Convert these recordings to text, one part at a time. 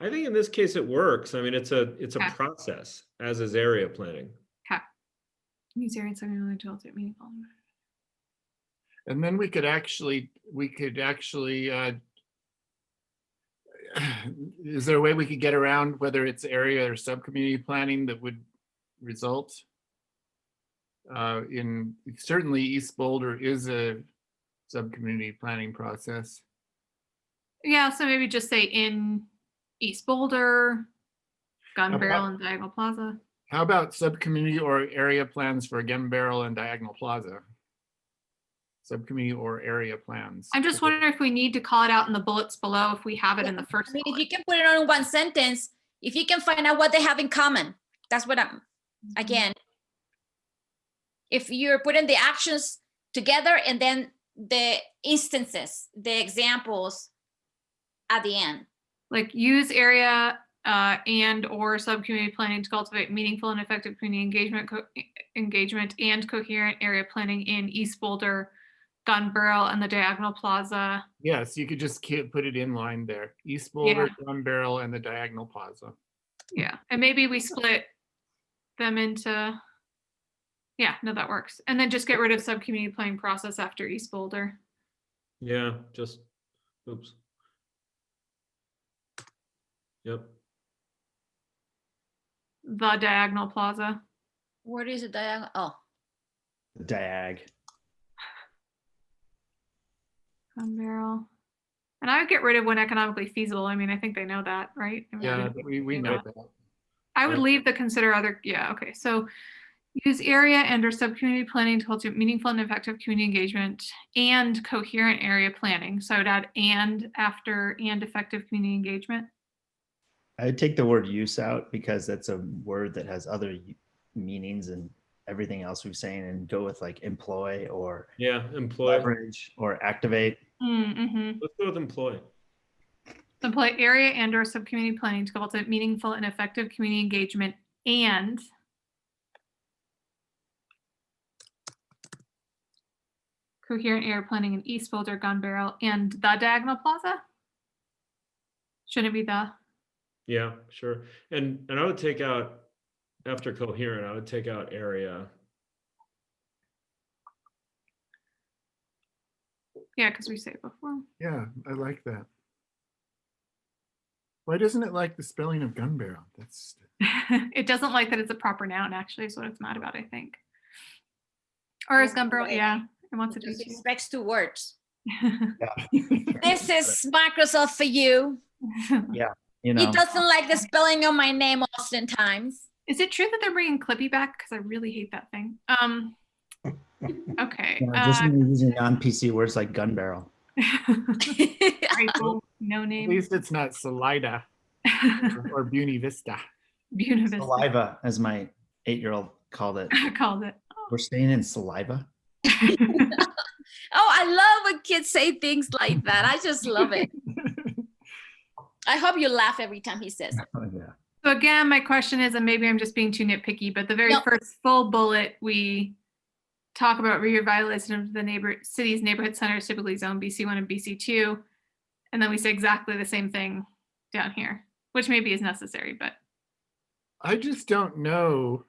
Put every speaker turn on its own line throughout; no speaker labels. I think in this case it works. I mean, it's a, it's a
Okay.
process, as is area planning.
Use area and subject matter to alter meaningful.
And then we could actually, we could actually, uh, is there a way we could get around whether it's area or sub-community planning that would result? Uh, in, certainly East Boulder is a sub-community planning process.
Yeah, so maybe just say in East Boulder, Gun
About-
Barrel and Diagonal Plaza.
How about sub-community or area plans for Gun Barrel and Diagonal Plaza? Sub-community or area plans.
I'm just wondering if we need to call it out in the bullets below if we have it in the first.
I mean, if
bullet.
you can put it on one sentence, if you can find out what they have in common, that's what I'm,
Mm-hmm.
again. If you're putting the actions together and then the instances, the examples at the end.
Like use area uh, and or sub-community planning to cultivate meaningful and effective community engagement, co- e, engagement and coherent area planning in East Boulder, Gun Barrel and the Diagonal Plaza.
Yes, you could just ki- put it in line there. East Boulder, Gun Barrel, and the Diagonal Plaza.
Yeah, and maybe we split them into, yeah, no, that works. And then just get rid of sub-community planning process after East Boulder.
Yeah, just, oops. Yep,
The Diagonal Plaza.
What is it, diagonal? Oh,
Diag.
Gun um, barrel. And I would get rid of when economically feasible. I mean, I think they know that, right? I mean,
Yeah, we, we know that.
I would
yeah.
leave the consider other, yeah, okay, so use area and or sub-community planning to cultivate meaningful and effective community engagement and coherent area planning. So I would add and after and effective community engagement.
I'd take the word use out because that's a word that has other y- meanings and everything else we've saying and go with like employ or
yeah, employ,
leverage or activate.
Mm-hmm.
let's go with employ.
Employ area and or subcommunity planning to cultivate meaningful and effective community engagement and coherent area planning in East Boulder, Gun Barrel, and the Diagonal Plaza? Shouldn't it be the,
Yeah, sure. And, and I would take out, after coherent, I would take out area.
yeah, because we say it before.
Yeah, I like that. Why doesn't it like the spelling of Gun Barrel? That's,
It doesn't like that it's a proper noun, actually, is what it's mad about, I think. Or is
Yeah,
Gun Barrel,
right.
yeah, it wants to do
just expects two words.
too.
This is Microsoft for you.
You know,
It doesn't like the spelling of my name oftentimes.
Is it true that they're bringing Clippy back? Because I really hate that thing. Um, okay.
you know, just
Uh,
using non-PC words like gun barrel.
Rachel, no
at
name.
least it's not Salida or Buena Vista.
Univista
Saliva, as my eight-year-old called it.
called it.
We're staying in saliva.
Oh, I love when kids say things like that. I just love it. I hope you laugh every time he says. it.
Oh, yeah.
so again, my question is, and maybe I'm just being too nitpicky, but the very
No.
first full bullet we talk about revitalization of the neighbor city's neighborhood centers, typically zone BC one and BC two, and then we say exactly the same thing down here, which maybe is necessary, but
I just don't know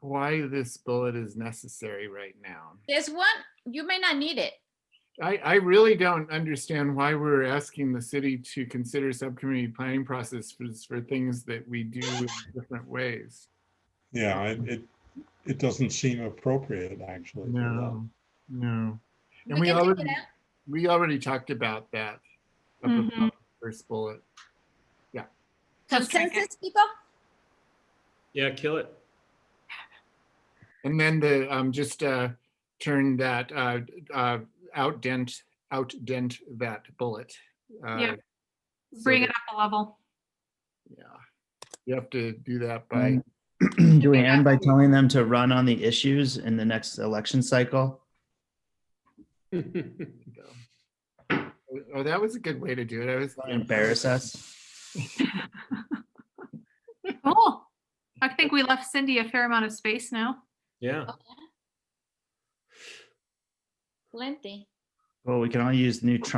why this bullet is necessary right now.
There's one, you may not need it.
I, I really don't understand why we're asking the city to consider subcommunity planning process for, for things that we do in different ways.
Yeah, it, it, it doesn't seem appropriate, actually. for that.
No, no. And
We
we
can take it
already,
out.
we already talked about that. up
Mhm.
above, First bullet.
Let's drink it.
Consensus, people?
Yeah, kill it.
And then the, um, just, uh, turn that, uh, uh, out dent, out dent that bullet. uh,
Yep.
so
bring it
that-
up a level.
Yeah. You have to do that by,
Mm. Do we end by telling them to run on the issues in the next election cycle?
oh, that was a good way to do it. I was.
Embarrass us?
Cool. I think we left Cindy a fair amount of space now.
Yeah,
Plenty.
Well, we can all use new Trump